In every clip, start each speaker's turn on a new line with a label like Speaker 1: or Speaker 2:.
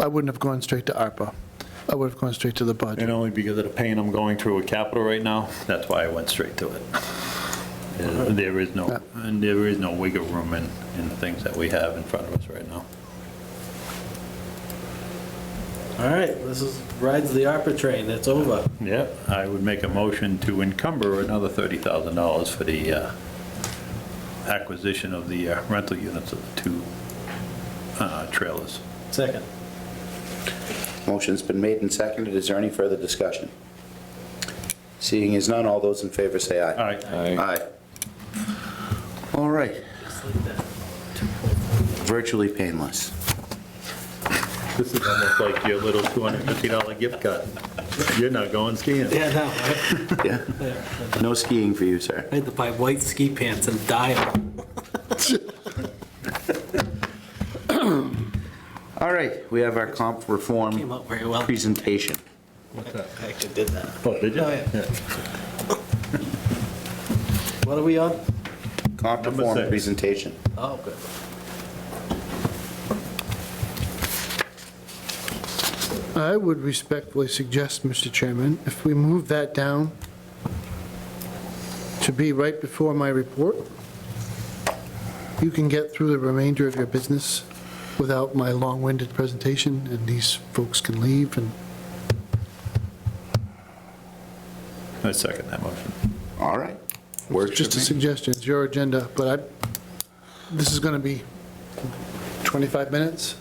Speaker 1: I wouldn't have gone straight to ARPA. I would have gone straight to the budget.
Speaker 2: And only because of the pain I'm going through with capital right now, that's why I went straight to it. Uh, There is no, and there is no wiggle room in, in the things that we have in front of us right now.
Speaker 3: All right, this is, rides the ARPA train, it's over.
Speaker 2: Yeah, I would make a motion to encumber another $30,000 for the uh, acquisition of the uh, rental units of the two uh, trailers.
Speaker 3: Second.
Speaker 4: Motion's been made and seconded. Is there any further discussion? Seeing as none, all those in favor say
Speaker 2: All
Speaker 4: aye.
Speaker 2: right,
Speaker 4: Aye. All right,
Speaker 3: Just like that.
Speaker 4: virtually painless.
Speaker 2: this is almost like your little $250 gift card. You're not going skiing.
Speaker 3: Yeah, no, I-
Speaker 4: Yeah,
Speaker 3: there.
Speaker 4: no skiing for you, sir.
Speaker 3: I had to buy white ski pants and dye them.
Speaker 4: All right, we have our comp
Speaker 3: Came
Speaker 4: reform
Speaker 3: out very well.
Speaker 4: presentation.
Speaker 3: I actually did that.
Speaker 2: Oh, did you?
Speaker 3: Oh, yeah. What are we on?
Speaker 4: Comp
Speaker 2: Number
Speaker 4: reform
Speaker 2: six.
Speaker 4: presentation.
Speaker 3: Oh, good.
Speaker 1: I would respectfully suggest, Mr. Chairman, if we move that down to be right before my report, you can get through the remainder of your business without my long-winded presentation, and these folks can leave, and
Speaker 2: I second that motion.
Speaker 4: All right.
Speaker 1: it's
Speaker 4: Works
Speaker 1: just a
Speaker 4: for me.
Speaker 1: suggestion, it's your agenda, but I, this is going to be 25 minutes?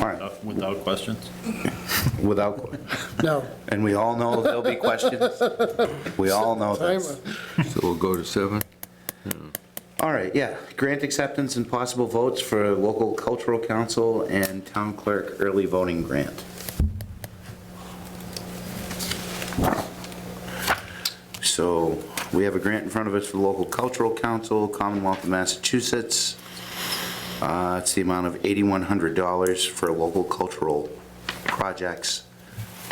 Speaker 4: All right,
Speaker 2: Without- Without questions?
Speaker 4: without,
Speaker 1: No,
Speaker 4: and we all know there'll be questions. We all know this.
Speaker 1: timer.
Speaker 5: So we'll go to seven?
Speaker 4: All right, yeah. Grant acceptance and possible votes for local cultural council and town clerk early voting grant. So we have a grant in front of us for local cultural council, Commonwealth of Massachusetts. Uh, It's the amount of $8,100 for local cultural projects.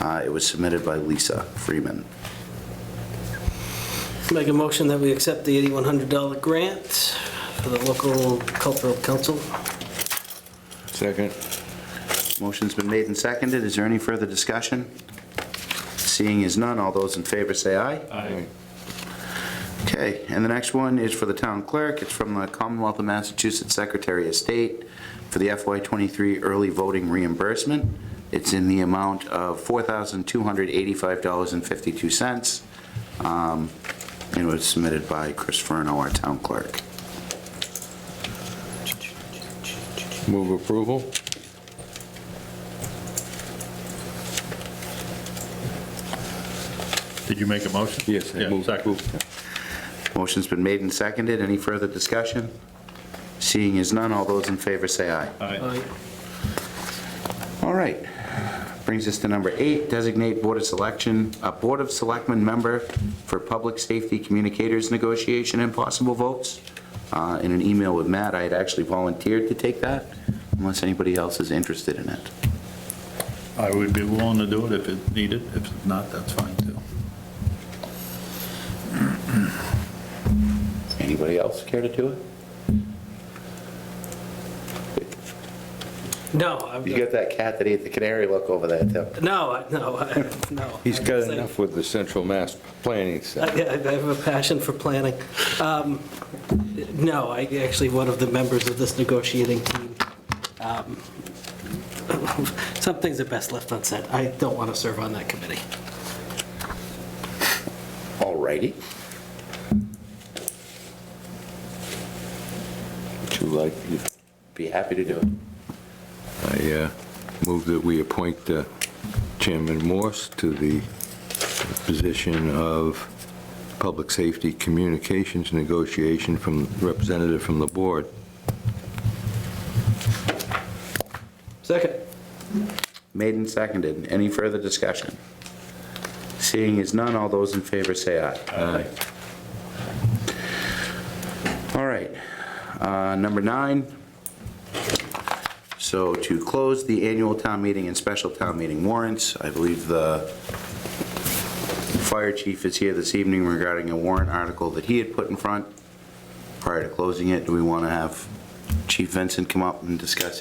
Speaker 4: Uh, It was submitted by Lisa Freeman.
Speaker 3: Make a motion that we accept the $8,100 grant for the local cultural council.
Speaker 5: Second.
Speaker 4: Motion's been made and seconded. Is there any further discussion? Seeing as none, all those in favor say aye.
Speaker 5: Aye.
Speaker 4: Okay, and the next one is for the town clerk. It's from the Commonwealth of Massachusetts Secretary of State for the FY23 early voting reimbursement. It's in the amount of $4,285.52. Um, And it was submitted by Chris Furno, our town clerk.
Speaker 5: Move approval?
Speaker 2: Did you make a motion?
Speaker 5: Yes, I
Speaker 2: Yeah,
Speaker 5: move
Speaker 2: second.
Speaker 5: approval.
Speaker 4: Motion's been made and seconded. Any further discussion? Seeing as none, all those in favor say aye.
Speaker 2: All right.
Speaker 3: Aye.
Speaker 4: All right. Brings us to number eight, designate Board of Selection, a Board of Selectmen member for Public Safety Communicators Negotiation and possible votes. Uh, In an email with Matt, I had actually volunteered to take that, unless anybody else is interested in it.
Speaker 2: I would be willing to do it if it's needed. If not, that's fine too.
Speaker 4: Anybody else care to do it?
Speaker 3: No,
Speaker 4: You
Speaker 3: I'm-
Speaker 4: got that cat that ate the canary look over there, Tim.
Speaker 3: no, I- no, I- no.
Speaker 5: He's
Speaker 3: I
Speaker 5: got
Speaker 3: was like-
Speaker 5: enough with the central mass planning
Speaker 3: I
Speaker 5: stuff.
Speaker 3: I have a passion for planning. Um, No, I actually, one of the members of this negotiating team. um, Some things are best left unsaid. I don't want to serve on that committee.
Speaker 4: All righty.
Speaker 5: Would you like,
Speaker 4: Be happy to do it.
Speaker 5: I uh, move that we appoint uh, Chairman Morse to the position of Public Safety Communications Negotiation from, representative from the board.
Speaker 3: Second.
Speaker 4: Made and seconded. Any further discussion? Seeing as none, all those in favor say aye.
Speaker 5: Aye.
Speaker 4: All right, uh, number nine. So to close the annual town meeting and special town meeting warrants, I believe the fire chief is here this evening regarding a warrant article that he had put in front. Prior to closing it, do we want to have Chief Vincent come up and discuss